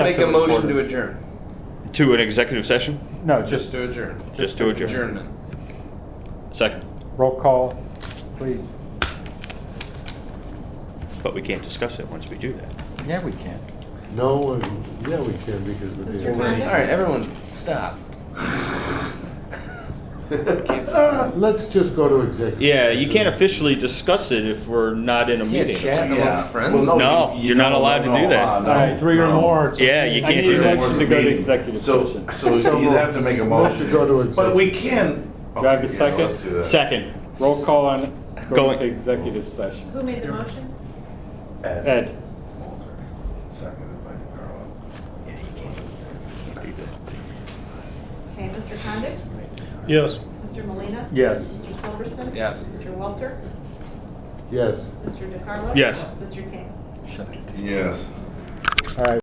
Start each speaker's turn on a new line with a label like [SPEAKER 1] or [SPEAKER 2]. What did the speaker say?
[SPEAKER 1] Make a motion to adjourn.
[SPEAKER 2] To an executive session?
[SPEAKER 3] No,
[SPEAKER 1] Just
[SPEAKER 3] just
[SPEAKER 1] to adjourn.
[SPEAKER 2] Just to adjourn.
[SPEAKER 1] Adjournment.
[SPEAKER 2] Second.
[SPEAKER 3] roll call, please.
[SPEAKER 2] But we can't discuss it once we do that.
[SPEAKER 3] Yeah, we can.
[SPEAKER 4] No, and- yeah, we can because the
[SPEAKER 5] Mr.
[SPEAKER 4] damn-
[SPEAKER 1] All
[SPEAKER 5] Condon?
[SPEAKER 1] right, everyone, stop.
[SPEAKER 4] Uh, Let's just go to executive.
[SPEAKER 2] Yeah, you
[SPEAKER 4] session.
[SPEAKER 2] can't officially discuss it if we're not in a
[SPEAKER 1] Can't
[SPEAKER 2] meeting.
[SPEAKER 1] chat amongst friends.
[SPEAKER 6] Oh,
[SPEAKER 2] no. you're not allowed to do that.
[SPEAKER 6] uh,
[SPEAKER 3] All right, three or more. it's-
[SPEAKER 2] Yeah, you
[SPEAKER 3] I
[SPEAKER 2] can't
[SPEAKER 3] need
[SPEAKER 2] do
[SPEAKER 3] a
[SPEAKER 2] that.
[SPEAKER 3] motion to go to executive session.
[SPEAKER 6] So, so you'd have to make a
[SPEAKER 4] Let's
[SPEAKER 6] motion.
[SPEAKER 4] go to executive.
[SPEAKER 6] But we can.
[SPEAKER 3] Do I have a
[SPEAKER 6] Okay, yeah,
[SPEAKER 3] second?
[SPEAKER 6] let's do that.
[SPEAKER 2] Second.
[SPEAKER 3] Roll call on going
[SPEAKER 2] Going-
[SPEAKER 3] to executive session.
[SPEAKER 5] Who made the motion?
[SPEAKER 6] Ed.
[SPEAKER 3] Ed,
[SPEAKER 6] Seconded by Carla.
[SPEAKER 5] Okay, Mr. Condit?
[SPEAKER 7] Yes.
[SPEAKER 5] Mr. Molina,
[SPEAKER 3] yes.
[SPEAKER 5] Mr. Silverston?
[SPEAKER 1] Yes.
[SPEAKER 5] Mr. Walter?
[SPEAKER 4] Yes.
[SPEAKER 5] Mr. DeCarlo?
[SPEAKER 2] Yes.
[SPEAKER 5] Mr. King?
[SPEAKER 6] Yes.
[SPEAKER 3] All right,